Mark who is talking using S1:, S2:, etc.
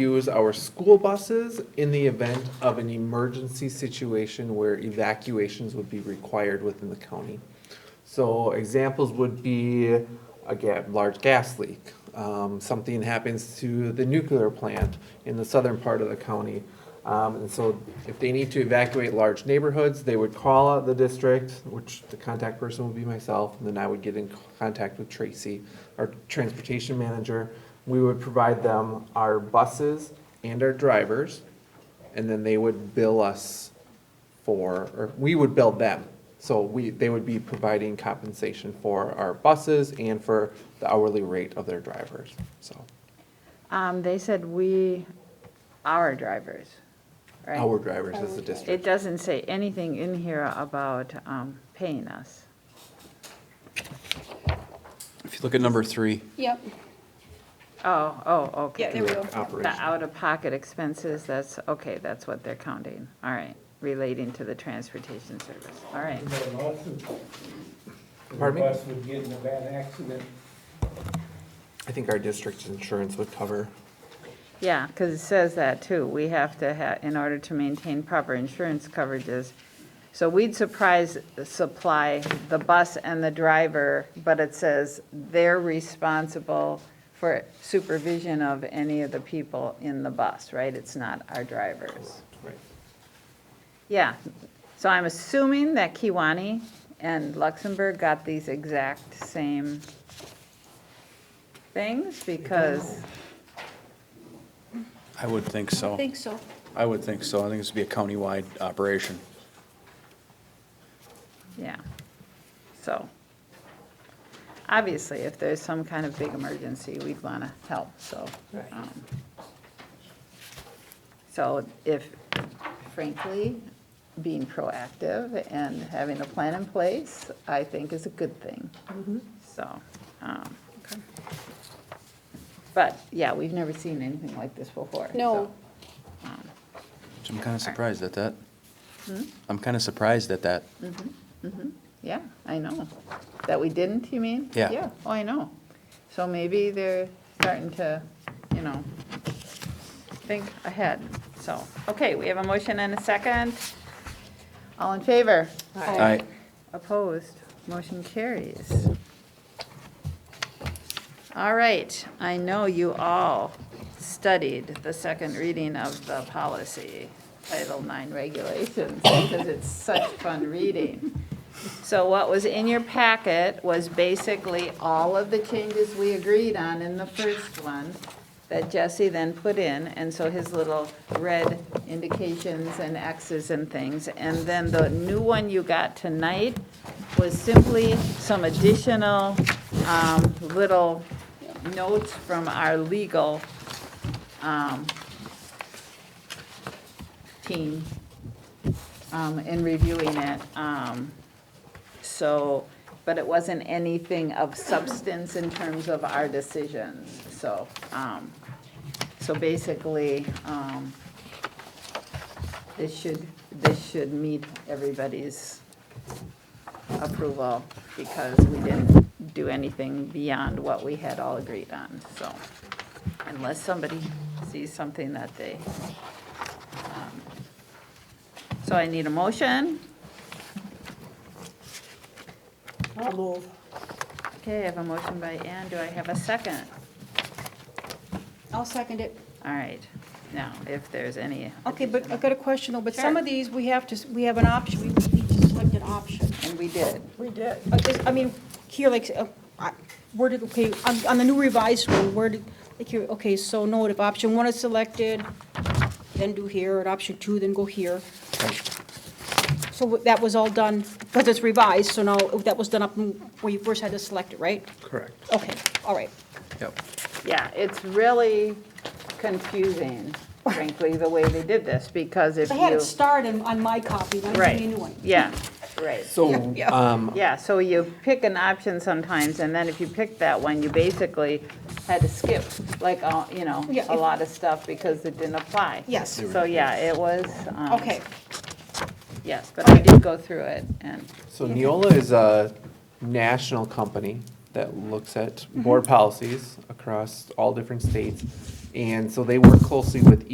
S1: use our school buses in the event of an emergency situation where evacuations would be required within the county. So examples would be a ga- large gas leak, um, something happens to the nuclear plant in the southern part of the county. Um, and so if they need to evacuate large neighborhoods, they would call out the district, which the contact person would be myself, and then I would get in contact with Tracy, our transportation manager. We would provide them our buses and our drivers, and then they would bill us for, or we would bill them. So we, they would be providing compensation for our buses and for the hourly rate of their drivers, so,
S2: Um, they said we, our drivers, right?
S1: our drivers as a district.
S2: It doesn't say anything in here about, um, paying us.
S3: If you look at number three,
S4: Yep,
S2: Oh, oh,
S4: yeah, there we
S2: okay.
S4: go.
S2: The out-of-pocket expenses, that's, okay, that's what they're counting, all right, relating to the transportation service, all right.
S5: There's a lawsuit. If
S1: Pardon me?
S5: The bus would get in a bad accident.
S1: I think our district's insurance would cover.
S2: Yeah, because it says that too. We have to have, in order to maintain proper insurance coverages. So we'd surprise, supply the bus and the driver, but it says they're responsible for supervision of any of the people in the bus, right? It's not our drivers.
S1: Right.
S2: Yeah, so I'm assuming that Kiwani and Luxembourg got these exact same things because,
S3: I would think so.
S4: I think so.
S3: I would think so. I think this would be a countywide operation.
S2: Yeah, so, obviously, if there's some kind of big emergency, we'd want to help, so. um, So if, frankly, being proactive and having a plan in place, I think is a good thing. So, um, but, yeah, we've never seen anything like this before.
S4: No.
S2: so, um,
S3: So I'm kind of surprised at that. I'm kind of surprised at that.
S2: Yeah, I know. That we didn't, you mean?
S3: Yeah.
S2: Yeah, oh, I know. So maybe they're starting to, you know, think ahead. So, okay, we have a motion and a second. All in favor?
S3: I,
S2: Opposed? Motion carries. All right, I know you all studied the second reading of the policy, Title IX regulations, because it's such fun reading. So what was in your packet was basically all of the changes we agreed on in the first one that Jesse then put in, and so his little red indications and Xs and things. And then the new one you got tonight was simply some additional um, little notes from our legal um, team um, in reviewing it. Um, So, but it wasn't anything of substance in terms of our decisions, so. um, So basically, um, this should, this should meet everybody's approval because we didn't do anything beyond what we had all agreed on, so. Unless somebody sees something that they. um, So I need a motion.
S6: I'll move.
S2: Okay, I have a motion by Ann. Do I have a second?
S4: I'll second it.
S2: All right. Now, if there's any.
S4: Okay, but I've got a question though, but
S2: Sure.
S4: some of these, we have to, s- we have an option, we need to select an option.
S2: And we did.
S6: We did.
S4: Uh, this- I mean, here, like, uh, I- where did, okay, on, on the new revised one, where did, like, here, okay, so note, if option one is selected, then do here, and option two, then go here. So wh- that was all done, because it's revised, so now, that was done up in- where you first had to select it, right?
S1: Correct.
S4: Okay, all right.
S3: yep.
S2: Yeah, it's really confusing, frankly, the way they did this because if
S4: I had
S2: you.
S4: it starred in- on my copy, then I made a new
S2: Right,
S4: one.
S2: yeah, right.
S1: So,
S4: yeah.
S1: um,
S2: Yeah, so you pick an option sometimes, and then if you pick that one, you basically had to skip, like, uh, you know,
S4: Yeah,
S2: a
S4: if-
S2: lot of stuff because it didn't apply.
S4: Yes. They were
S2: So, yeah, it was. um,
S4: Okay,
S2: Yes, but I did go through it, and,
S1: so Neola is a Mm-hmm. national company that looks at board policies across all different states. And so they work closely with